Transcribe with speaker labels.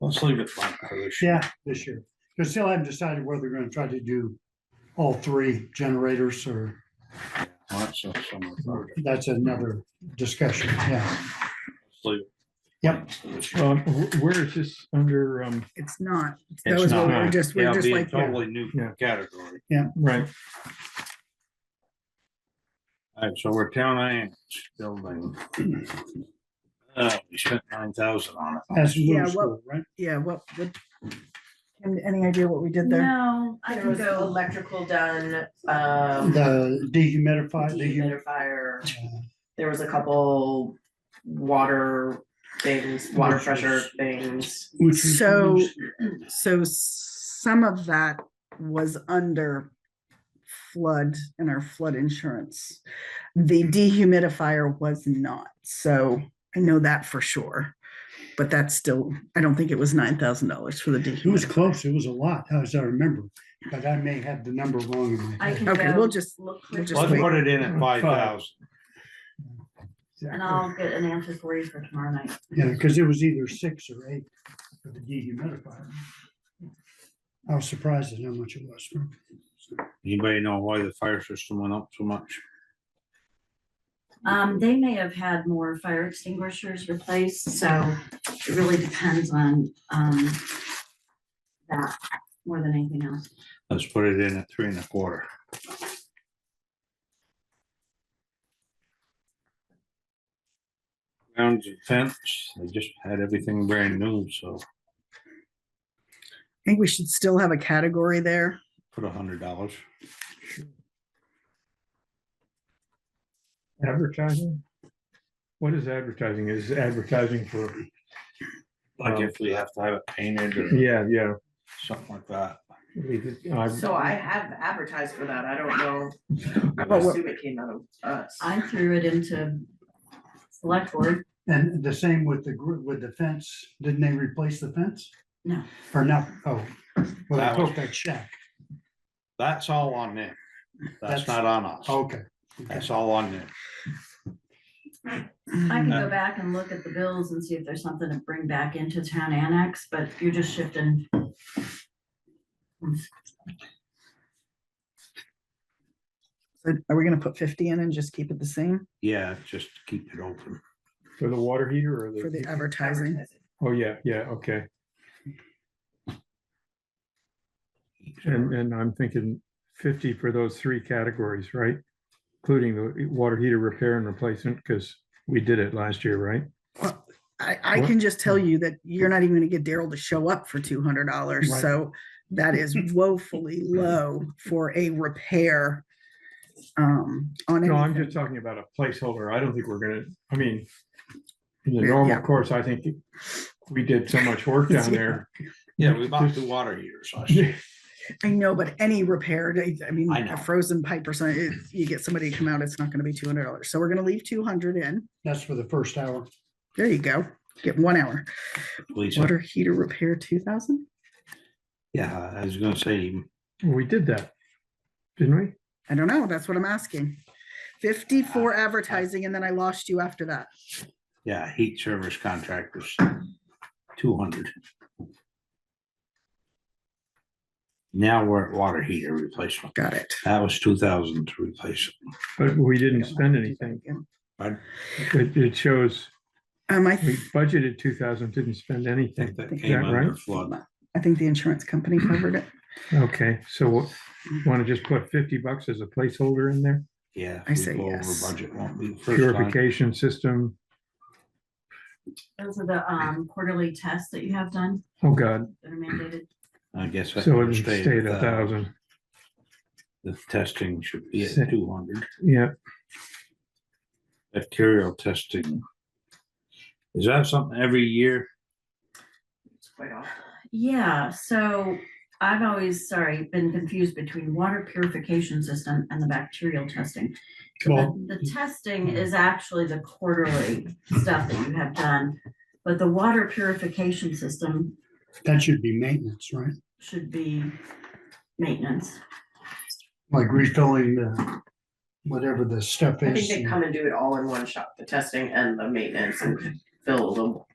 Speaker 1: Let's leave it blank for this. year.
Speaker 2: Yeah, this year. Because still haven't decided whether we're gonna try to do all three generators or
Speaker 1: Lots of summer projects.
Speaker 2: that's another discussion, yeah.
Speaker 1: Let's leave it.
Speaker 2: Yep.
Speaker 1: For this year.
Speaker 3: Um, wh- where is this under, um,
Speaker 4: It's not. That
Speaker 1: It's
Speaker 4: was what we
Speaker 1: not,
Speaker 4: were just, we
Speaker 1: yeah,
Speaker 4: were
Speaker 1: it'll
Speaker 4: just
Speaker 1: be a
Speaker 4: like,
Speaker 1: totally new
Speaker 3: Yeah.
Speaker 1: category.
Speaker 3: right,
Speaker 1: All right, so we're town and building. Uh, we spent nine thousand on it.
Speaker 2: That's
Speaker 4: Yeah,
Speaker 2: middle
Speaker 4: what-
Speaker 2: school, right?
Speaker 4: yeah, what, what? and Any idea what we did there?
Speaker 5: No, I
Speaker 6: There
Speaker 5: can
Speaker 6: was
Speaker 5: go.
Speaker 6: electrical done, um,
Speaker 2: The dehumidified, dehumidified.
Speaker 6: dehumidifier, there was a couple water things, water pressure things.
Speaker 2: which we
Speaker 4: So,
Speaker 2: use.
Speaker 4: so some of that was under flood and our flood insurance. The dehumidifier was not, so I know that for sure. But that's still, I don't think it was nine thousand dollars for the
Speaker 2: It was
Speaker 4: dehumidifier.
Speaker 2: close, it was a lot, as I remember, but I may have the number wrong in my
Speaker 5: I
Speaker 2: head.
Speaker 5: can
Speaker 4: Okay,
Speaker 5: go
Speaker 4: we'll just,
Speaker 5: look
Speaker 4: we'll
Speaker 5: quick
Speaker 4: just
Speaker 1: Let's
Speaker 4: wait. Mm-hmm.
Speaker 1: put it in at
Speaker 2: Five.
Speaker 1: five thousand.
Speaker 5: and
Speaker 2: Exactly.
Speaker 5: I'll get an answer for you for tomorrow night.
Speaker 2: Yeah, because it was either six or eight for the dehumidifier. I was surprised at how much it was.
Speaker 1: Anybody know why the fire system went up so much?
Speaker 5: Um, they may have had more fire extinguishers replaced, so it really depends on, um, that more than anything else.
Speaker 1: Let's put it in at three and a quarter. Grounds and fence, they just had everything brand new, so
Speaker 4: I think we should still have a category there.
Speaker 1: put a hundred dollars.
Speaker 3: advertising? What is advertising? Is advertising for,
Speaker 1: Like if we have to have it painted or
Speaker 3: yeah, yeah.
Speaker 1: something like that.
Speaker 3: I mean, I-
Speaker 6: So I have advertised for that, I don't know, I
Speaker 4: But what-
Speaker 6: assume it came out of us.
Speaker 5: I threw it into select board.
Speaker 2: And the same with the group, with the fence, didn't they replace the fence?
Speaker 5: No.
Speaker 2: Or not, oh, well,
Speaker 1: That
Speaker 2: I
Speaker 1: was-
Speaker 2: broke that shack,
Speaker 1: That's all on them. That's oh,
Speaker 2: That's-
Speaker 1: not on us.
Speaker 2: okay.
Speaker 1: That's all on them.
Speaker 5: I can
Speaker 1: Yeah.
Speaker 5: go back and look at the bills and see if there's something to bring back into town annex, but you're just shifting.
Speaker 4: So Are we gonna put fifty in and just keep it the same
Speaker 1: Yeah, just keep it open.
Speaker 3: for the water heater or
Speaker 4: for the
Speaker 3: the,
Speaker 4: advertising?
Speaker 3: oh, yeah, yeah, okay. And, and I'm thinking fifty for those three categories, right? Including the water heater repair and replacement, because we did it last year, right?
Speaker 4: I, I
Speaker 3: What-
Speaker 4: can just tell
Speaker 3: Hmm.
Speaker 4: you that you're not even gonna get Daryl to show up for two hundred dollars,
Speaker 3: Right.
Speaker 4: so that is woefully low for a repair. Um, on
Speaker 3: No, I'm
Speaker 4: anything.
Speaker 3: just talking about a placeholder. I don't think we're gonna, I mean, in the
Speaker 4: Yeah,
Speaker 3: normal
Speaker 4: yeah.
Speaker 3: course, I think we did so much work down there.
Speaker 1: Yeah, we bought the water heaters. last year.
Speaker 3: Yeah,
Speaker 4: I know, but any repair, I I mean,
Speaker 1: I know.
Speaker 4: a frozen pipe or something, it- you get somebody to come out, it's not gonna be two hundred dollars, so we're gonna leave two hundred in.
Speaker 2: That's for the first hour.
Speaker 4: There you go, get one hour.
Speaker 1: Lisa,
Speaker 4: Water heater repair, two thousand?
Speaker 1: yeah, Uh, I was gonna say,
Speaker 3: We did that, didn't we?
Speaker 4: I don't know, that's what I'm asking. Fifty
Speaker 3: Ah,
Speaker 4: for advertising, and then I lost you after that.
Speaker 1: yeah, heat service contractors, two hundred. Now we're at water heater replacement.
Speaker 4: Got it.
Speaker 1: That was two thousand to replace it.
Speaker 3: But we didn't spend anything.
Speaker 1: Pardon?
Speaker 3: It, it shows
Speaker 4: Um, I
Speaker 3: we budgeted two thousand, didn't spend
Speaker 1: I think
Speaker 3: anything.
Speaker 1: that
Speaker 4: Is
Speaker 1: came
Speaker 3: that
Speaker 1: under
Speaker 3: right?
Speaker 1: flood.
Speaker 4: I think the insurance company covered it.
Speaker 3: Okay, so want to just put fifty bucks as a placeholder in there?
Speaker 1: Yeah. if
Speaker 4: I
Speaker 1: we
Speaker 4: say
Speaker 1: go over
Speaker 4: yes.
Speaker 1: Budget won't be. the first time.
Speaker 3: Purification system.
Speaker 5: Those are the, um, quarterly tests that you have done
Speaker 3: Oh, God.
Speaker 5: that are mandated.
Speaker 1: I guess. that
Speaker 3: So it
Speaker 1: would stay at
Speaker 3: stayed a
Speaker 1: that.
Speaker 3: thousand.
Speaker 1: The testing should be at
Speaker 3: Six.
Speaker 1: two hundred.
Speaker 3: Yeah,
Speaker 1: Bacterial testing. Is that something every year?
Speaker 6: It's quite often.
Speaker 5: Yeah, so I've always, sorry, been confused between water purification system and the bacterial testing.
Speaker 2: Well,
Speaker 5: The the testing is actually the quarterly stuff that you have done, but the water purification system
Speaker 2: that should be maintenance, right?
Speaker 5: should be maintenance.
Speaker 2: Like refilling the, whatever the stuff
Speaker 6: I think
Speaker 2: is.
Speaker 6: they
Speaker 2: and-
Speaker 6: come and do it all in one shot, the testing and the maintenance and fill the